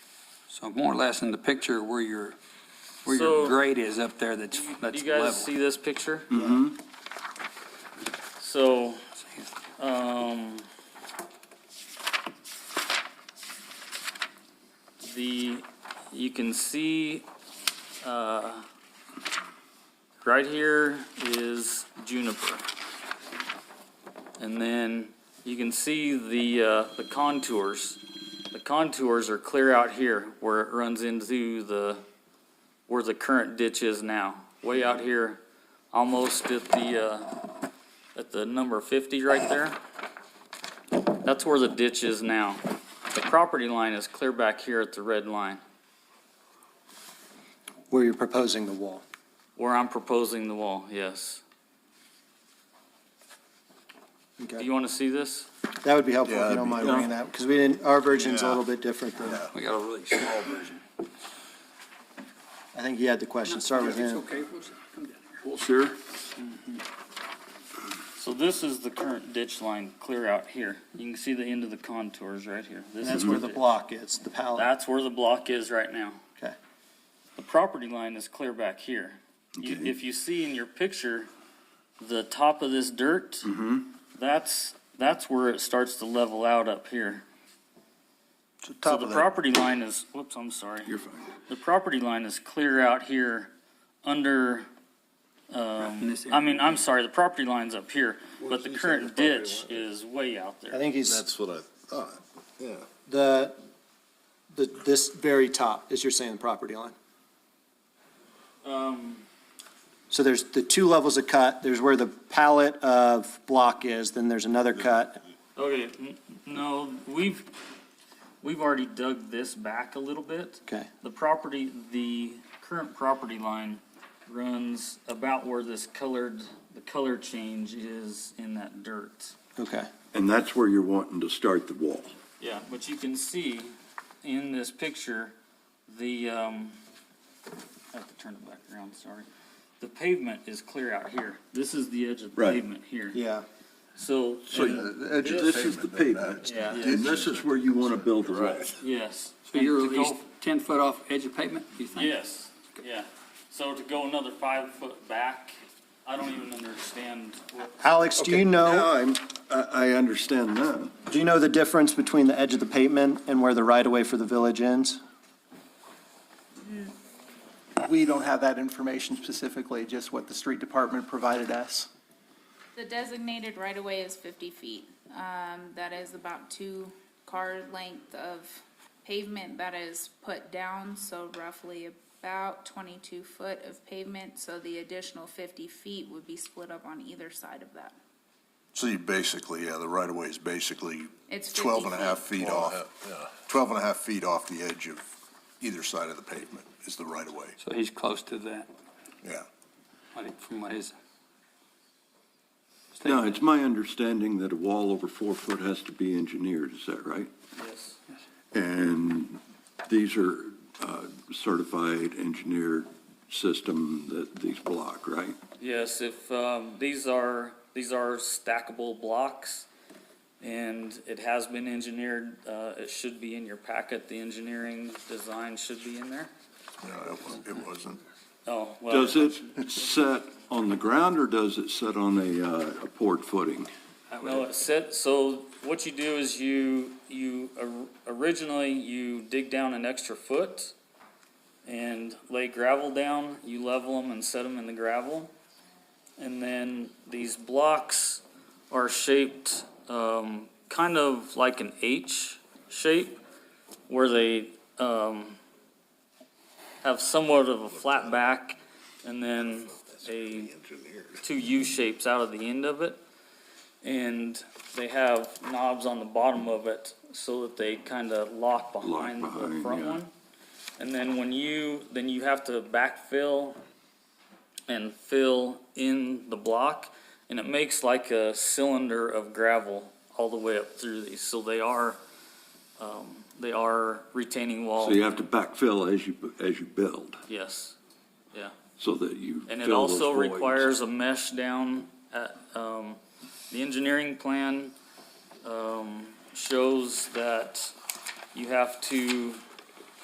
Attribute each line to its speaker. Speaker 1: So more or less in the picture where your, where
Speaker 2: So-
Speaker 1: your grade is up there, that's,
Speaker 2: Do you- do
Speaker 1: that's
Speaker 2: you guys
Speaker 1: level. Mm-hmm.
Speaker 2: see this picture? So, um, the, you can see, uh, right here is juniper. And then you can see the, uh, the contours. The contours are clear out here where it runs into the, where the current ditch is now, way out here, almost at the, uh, at the number fifty right there. That's where the ditch is now. The property line is clear back here at the red line,
Speaker 3: Where you're proposing the wall.
Speaker 2: where I'm proposing the wall, yes. Do you wanna see this?
Speaker 3: That would be helpful
Speaker 4: Yeah,
Speaker 3: if you
Speaker 4: that'd
Speaker 3: don't
Speaker 4: be-
Speaker 3: mind bringing that, because we didn't, our version's a
Speaker 4: Yeah.
Speaker 3: little bit different than,
Speaker 4: Yeah.
Speaker 1: We got a really small version.
Speaker 3: I think he had the question, start with him.
Speaker 1: okay, we'll come down.
Speaker 4: Sure.
Speaker 2: So this is the current ditch line clear out here. You can see the end of the contours right here. This is ditch-
Speaker 3: block is, the palette.
Speaker 2: That's where the block is right now.
Speaker 3: Okay.
Speaker 2: The property line is clear back here. You-
Speaker 4: Okay.
Speaker 2: If you see in your picture, the top of this dirt,
Speaker 4: Mm-hmm.
Speaker 5: Mm-hmm.
Speaker 2: that's, that's where it starts to level out up here.
Speaker 4: So
Speaker 2: So
Speaker 4: top
Speaker 2: the
Speaker 4: of that,
Speaker 2: property line is, whoops, I'm sorry.
Speaker 4: you're fine.
Speaker 2: The property line is clear out here under,
Speaker 1: in
Speaker 2: um,
Speaker 1: this
Speaker 2: I
Speaker 1: area.
Speaker 2: mean, I'm sorry, the property line's up here, but the
Speaker 4: he's
Speaker 2: current
Speaker 4: at the property
Speaker 2: ditch is way out
Speaker 3: I
Speaker 2: there.
Speaker 3: think he's,
Speaker 4: That's what I thought, yeah.
Speaker 3: the, the, this very top is you're saying the property line.
Speaker 2: Um,
Speaker 3: So there's the two levels of cut, there's where the palette of block is, then there's another cut.
Speaker 2: Okay, n- no, we've, we've already dug this back a little bit.
Speaker 3: Okay.
Speaker 2: The property, the current property line runs about where this colored, the color change is in that dirt.
Speaker 3: Okay.
Speaker 5: And that's where you're wanting to start the wall.
Speaker 2: Yeah, but you can see in this picture, the, um, I have to turn it back around, sorry. The pavement is clear out here. This is the edge of the
Speaker 5: Right.
Speaker 2: pavement here.
Speaker 3: Yeah.
Speaker 2: So,
Speaker 5: So the edge of this is the pavement,
Speaker 2: yeah,
Speaker 5: and this is where you want to build the wall.
Speaker 2: yes.
Speaker 1: So you're
Speaker 2: And
Speaker 1: at
Speaker 2: to go
Speaker 1: least ten foot off edge of pavement, you think?
Speaker 2: Yes, yeah. So to go another five foot back, I don't even understand what.
Speaker 3: Alex, do you know,
Speaker 5: Now I'm, I, I understand now.
Speaker 3: do you know the difference between the edge of the pavement and where the right-of-way for the village ends?
Speaker 6: We don't have that information specifically, just what the street department provided us.
Speaker 7: The designated right-of-way is fifty feet. Um, that is about two car length of pavement that is put down, so roughly about twenty-two foot of pavement. So the additional fifty feet would be split up on either side of that.
Speaker 4: So you basically, yeah, the right of way is basically
Speaker 7: It's 50
Speaker 4: 12 and a half
Speaker 7: feet.
Speaker 4: feet off, 12 and a half feet off the edge of either side of the pavement is the right of way,
Speaker 1: So he's close to that,
Speaker 4: yeah.
Speaker 1: I think, from what his.
Speaker 5: Now, it's my understanding that a wall over four foot has to be engineered, is that right?
Speaker 2: Yes.
Speaker 5: And these are uh, certified engineered system that these block, right?
Speaker 2: Yes, if, um, these are, these are stackable blocks and it has been engineered, uh, it should be in your packet. The engineering design should be in there.
Speaker 4: No, it wa- it wasn't.
Speaker 2: Oh, well,
Speaker 5: Does it set on the ground or does it set on a, uh, a poured footing?
Speaker 2: no, it said, so what you do is you, you, or- originally you dig down an extra foot and lay gravel down, you level them and set them in the gravel. And then these blocks are shaped, um, kind of like an H shape where they, um, have somewhat of a flat back and then a, two U shapes out of the end of it. And they have knobs on the bottom of it so that they kind of lock behind the
Speaker 5: behind,
Speaker 2: front
Speaker 5: yeah.
Speaker 2: one. And then when you, then you have to backfill and fill in the block, and it makes like a cylinder of gravel all the way up through these. So they are, um, they are retaining wall.
Speaker 5: So you have to backfill as you, as you build,
Speaker 2: Yes,
Speaker 5: so that you
Speaker 2: and it
Speaker 5: fill those
Speaker 2: also
Speaker 5: voids.
Speaker 2: requires a mesh down at, um, the engineering plan, um, shows that you have to